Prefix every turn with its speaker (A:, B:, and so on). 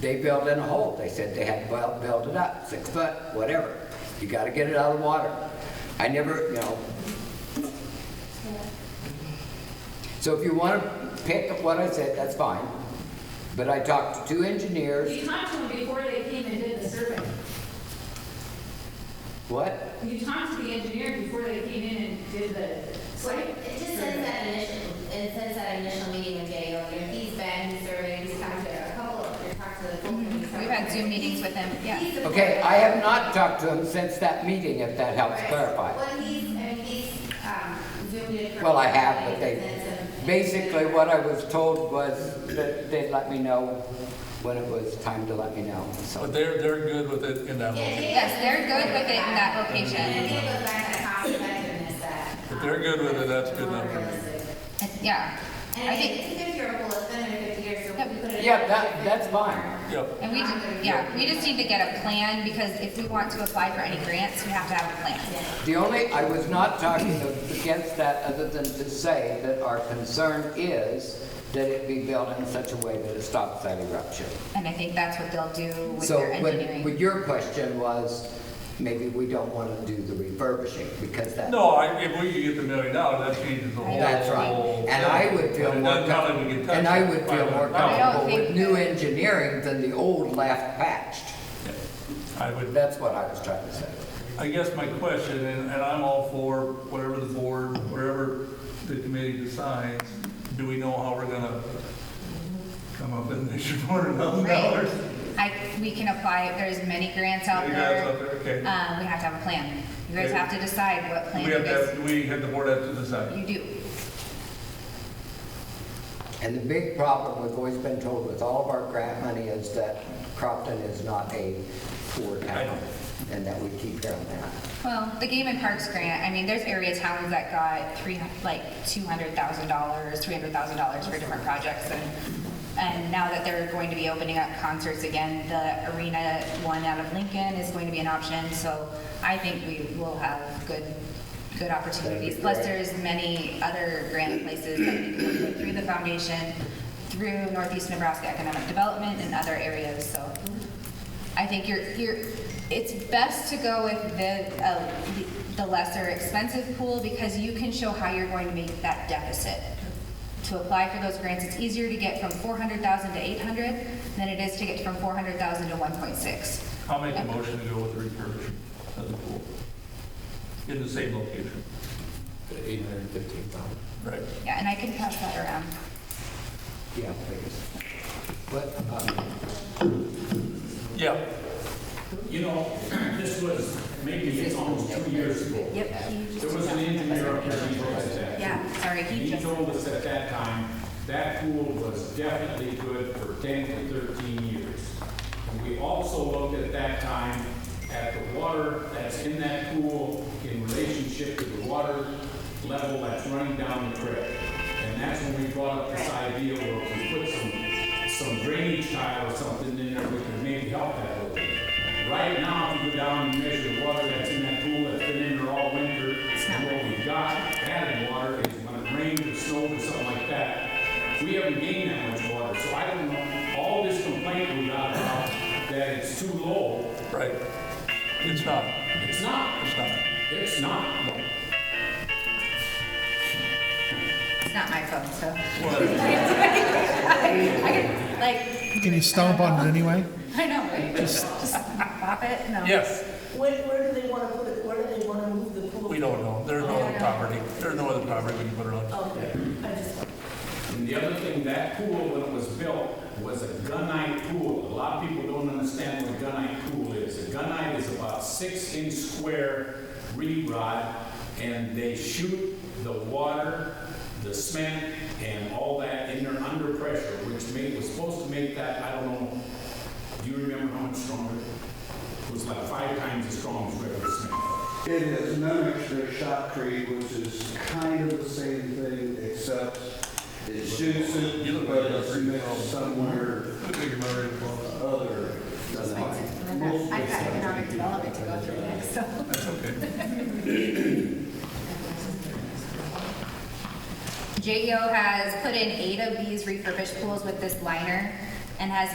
A: They built in a hole. They said they had to buil- build it up, six foot, whatever. You gotta get it out of the water. I never, you know. So if you wanna pick up what I said, that's fine. But I talked to two engineers.
B: You talked to them before they came and did the survey.
A: What?
B: You talked to the engineer before they came in and did the
C: So
B: site.
C: it just says that initial, it says that initial meeting with J.O., you know, he's been, he's surveyed, he's talked to a couple of, he's talked to the. full committee, he's
D: Mm-hmm. We've
C: talked
D: had
C: to-
D: Zoom meetings with them, yeah.
C: He's
A: Okay,
C: supportive.
A: I have not talked to him since that meeting, if that helps
C: Right.
A: clarify.
C: Well, he's, I mean, he's, um, zoomed in. for-
A: Well, I have, but
C: and
A: they,
C: some-
A: basically what I was told was that they'd let me know when it was time to let me know, so.
E: But they're, they're good with it in that
C: Yeah,
E: location.
C: J.O.
D: Yes, they're good with it in that location.
C: And I think it goes back to cost effectiveness that. um,
E: If they're good with it, that's good enough for me.
D: Yeah.
C: And
D: I think,
C: it's a fifty-year-old, it's been in fifty years, so we put it. in
A: Yeah,
C: there.
A: that- that's fine.
E: Yep,
D: and we, ju- yeah, we just need to get a plan because if we want to apply for any grants, we have to have a plan.
A: The only, I was not talking against that other than to say that our concern is that it be built in such a way that it stops that eruption.
D: And I think that's what they'll do with
A: So
D: their
A: what-
D: engineering.
A: what your question was, maybe we don't want to do the refurbishing because that.
E: no, I, if we could get the million dollars, that changes the whole.
A: That's right.
E: whole
A: And
E: thing.
A: I would feel
E: But it
A: more,
E: doesn't sound like we can
A: com-
E: touch
A: and I
E: it.
A: would feel more
E: No, I
A: comfortable with
D: think-
A: new engineering than the old left patched.
E: would,
A: That's what I was trying to say.
E: I guess my question, and, and I'm all for whatever the board, whatever the committee decides, do we know how we're gonna come up with an extra four hundred thousand dollars?
D: I, we can apply, there's many grants out
E: Any grants out
D: there.
E: there? Okay.
D: Um, we have to have a plan. You guys
E: Okay.
D: have to decide what plan
E: We
D: it
E: have to,
D: is.
E: have- we have, the board has to decide.
D: You do.
A: And the big problem we've always been told with all of our grant money is that Crofton is not a poor
E: I
A: town
E: know.
A: and that we keep hearing that.
D: Well, the Game and Parks grant, I mean, there's area towns that got three, like two hundred thousand dollars, three hundred thousand dollars for different projects and, and now that they're going to be opening up concerts again, the arena one out of Lincoln is going to be an option, so I think we will have good, good opportunities. Plus, there's many other grant places that we can look through the foundation, through Northeast Nebraska Economic Development and other areas, so. I think you're, you're, it's best to go with the, uh, the lesser expensive pool because you can show how you're going to make that deficit. To apply for those grants, it's easier to get from four hundred thousand to eight hundred than it is to get from four hundred thousand to one point six.
E: I'll make a motion to go with the refurbishing of the pool in the same location.
A: Eight hundred and fifteen thousand.
E: Right.
D: Yeah, and I can pass that around.
A: Yeah, please. But, um,
E: Yeah.
F: You know, this was maybe almost two years ago.
D: Yep. he just
F: There was
D: took
F: an
D: that.
F: engineer up there, he told us that.
D: Yeah, sorry,
F: And
D: he
F: he
D: just,
F: told us at that time, that pool was definitely good for ten to thirteen years. And we also looked at that time at the water that's in that pool in relationship to the water level that's running down the creek. And that's when we brought up this idea where if we put some, some drainage tile or something in there, we could maybe help that a little bit. Right now, if you go down and measure the water that's in that pool that's been in there all winter, and what we've got added water is when it rains or snows or something like that. We haven't gained that much water, so I don't know, all this complaint we got about that it's too low,
E: Right. It's not,
F: it's not,
E: it's not.
F: it's not.
D: it's not my phone, so.
E: Well,
D: I can, like,
G: Can you stomp on it anyway?
D: I know, right? just, just pop it, no.
E: Yes,
H: Where, where do they want to put it, where do they want to move the pool?
E: we don't know. There's no other property. There's no other property we can put it on.
H: Okay, I just.
F: And the other thing, that pool, when it was built, was a gunite pool. A lot of people don't understand what a gunite pool is. A gunite is about six inch square reed rod, and they shoot the water, the cement, and all that in there under pressure, which made, was supposed to make that, I don't know, do you remember how much stronger? It was like five times as strong as regular cement.
I: It has no extra shot creed, which is kind of the same thing, except it shoots it, but it's mixed somewhere other.
D: I've got economic development to go through next, so.
E: That's okay.
D: E JEO has put in eight of these refurbished pools with this liner and has